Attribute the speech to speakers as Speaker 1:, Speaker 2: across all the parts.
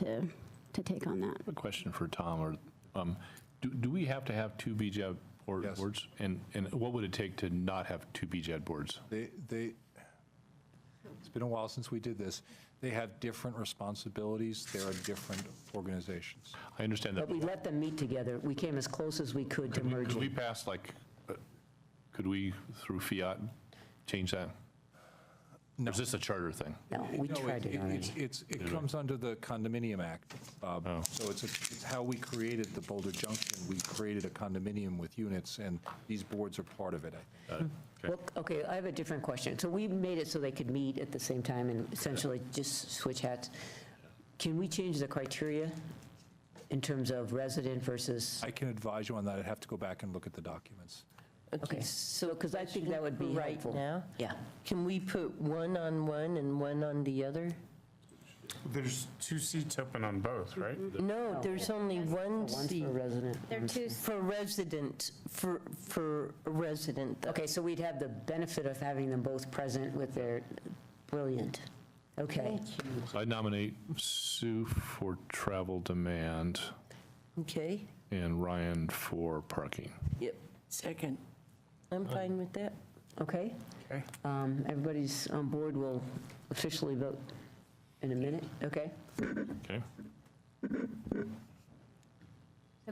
Speaker 1: to, to take on that.
Speaker 2: A question for Tom, or, um, do, do we have to have two BJAD board-
Speaker 3: Yes.
Speaker 2: boards? And, and what would it take to not have two BJAD boards?
Speaker 3: They, they, it's been a while since we did this. They have different responsibilities. They are different organizations.
Speaker 2: I understand that,
Speaker 4: But we let them meet together. We came as close as we could to
Speaker 2: could we
Speaker 4: merging.
Speaker 2: pass, like, uh, could we, through fiat, change that? Or is this a charter thing?
Speaker 4: No, we
Speaker 3: No,
Speaker 4: tried
Speaker 3: it-
Speaker 4: it already.
Speaker 3: It's, it's, it comes under the Condominium Act, Bob. So it's, it's how we created the Boulder Junction. We created a condominium with units, and these boards are part of it. I think.
Speaker 4: Well, okay, I have a different question. So we made it so they could meet at the same time and essentially just switch hats. Can we change the criteria in terms of resident versus,
Speaker 3: I can advise you on that. I'd have to go back and look at the documents.
Speaker 4: okay, so, because I think that would be
Speaker 5: Right
Speaker 4: helpful.
Speaker 5: now?
Speaker 4: Yeah.
Speaker 5: Can we put one on one and one on the other?
Speaker 6: There's two seats open on both, right?
Speaker 5: No, there's only one
Speaker 4: One
Speaker 5: seat
Speaker 4: for resident.
Speaker 7: They're two,
Speaker 5: for resident, for, for a resident. though.
Speaker 4: Okay, so we'd have the benefit of having them both present with their, brilliant. Okay.
Speaker 2: So I nominate Sue for travel demand
Speaker 5: Okay,
Speaker 2: and Ryan for parking.
Speaker 5: yep,
Speaker 8: Second.
Speaker 5: I'm fine with that.
Speaker 4: Okay? Um, Everybody's on board, we'll officially vote in a minute, okay?
Speaker 2: Okay?
Speaker 1: So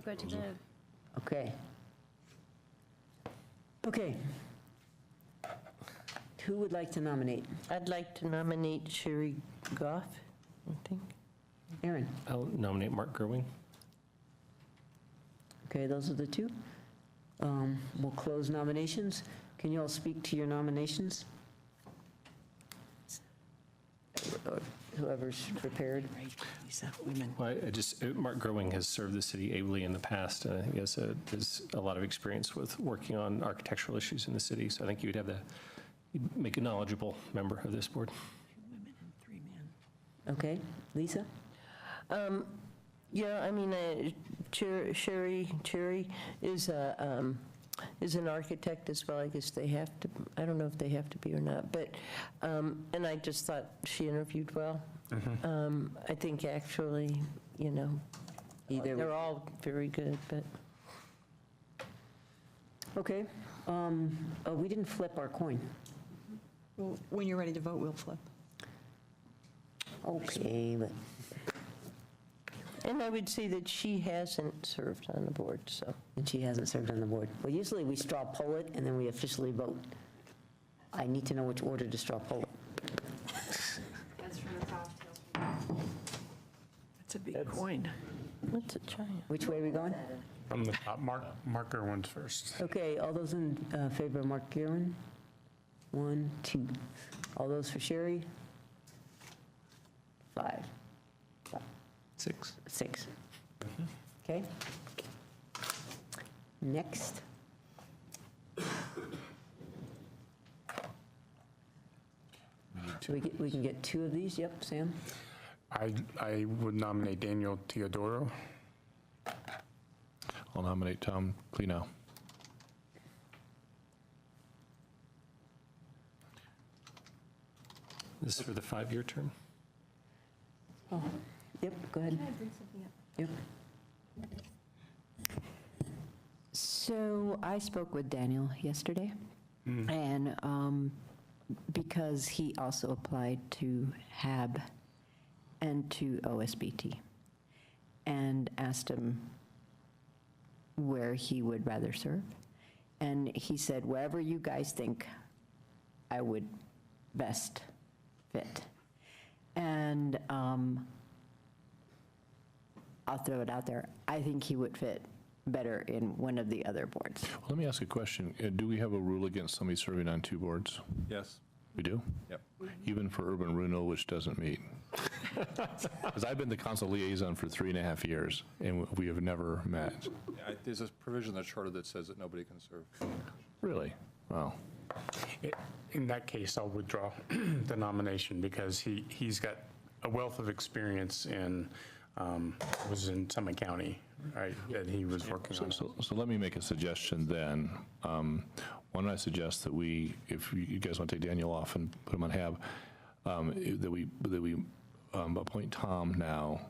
Speaker 1: go to the,
Speaker 4: Okay. Okay. Who would like to nominate?
Speaker 5: I'd like to nominate Sherry Goff, I think.
Speaker 4: Aaron?
Speaker 8: I'll nominate Mark Gerwing.
Speaker 4: Okay, those are the two. Um, We'll close nominations. Can you all speak to your nominations? Or Whoever's prepared.
Speaker 8: Well, I- I just, uh, Mark Gerwing has served the city ably in the past, and I think he has a, has a lot of experience with working on architectural issues in the city, so I think you would have the, you'd make a knowledgeable member of this board.
Speaker 4: Okay, Lisa?
Speaker 5: Yeah, I mean, uh, Cher- Sherry, Cherry is a, um, is an architect as well, I guess they have to, I don't know if they have to be or not, but, um, and I just thought she interviewed well. Um, I think actually, you know,
Speaker 4: Either
Speaker 5: they're all very good, but.
Speaker 4: Okay. um, oh, We didn't flip our coin.
Speaker 9: Well, When you're ready to vote, we'll flip.
Speaker 4: Okay, but
Speaker 5: And I would say that she hasn't served on the board, so.
Speaker 4: And she hasn't served on the board. Well, usually we straw poll it and then we officially vote. I need to know which order to straw poll it.
Speaker 8: That's a big coin.
Speaker 5: That's a giant.
Speaker 4: Which way are we going?
Speaker 6: From the top, Mark, Mark Gerwin's first.
Speaker 4: Okay, all those in uh, favor of Mark Guerin? One, two. All those for Sherry? Five,
Speaker 8: Six.
Speaker 4: six. Okay? Next. We get- We can get two of these, yep, Sam?
Speaker 6: I, I would nominate Daniel Teodoro.
Speaker 2: I'll nominate Tom Klenow.
Speaker 8: This is for the five-year term.
Speaker 4: Yep, go ahead. Yep.
Speaker 10: So I spoke with Daniel yesterday, and um, because he also applied to HAB and to OSBT, and asked him where he would rather serve. And he said, wherever you guys think I would best fit. And um, I'll throw it out there, I think he would fit better in one of the other boards.
Speaker 2: Let me ask a question. Uh, Do we have a rule against somebody serving on two boards?
Speaker 3: Yes.
Speaker 2: We do?
Speaker 3: Yep.
Speaker 2: Even for urban renewal, which doesn't meet. Because I've been the council liaison for three and a half years, and we have never met.
Speaker 3: I- There's a provision in the charter that says that nobody can serve.
Speaker 2: Really? Wow.
Speaker 6: I- In that case, I'll withdraw the nomination because he, he's got a wealth of experience in, um, was in Summit County, right, that he was working on.
Speaker 2: So, so let me make a suggestion then. Um, Why don't I suggest that we, if you- you guys want to take Daniel off and put him on HAB, um, i- that we, that we um, appoint Tom now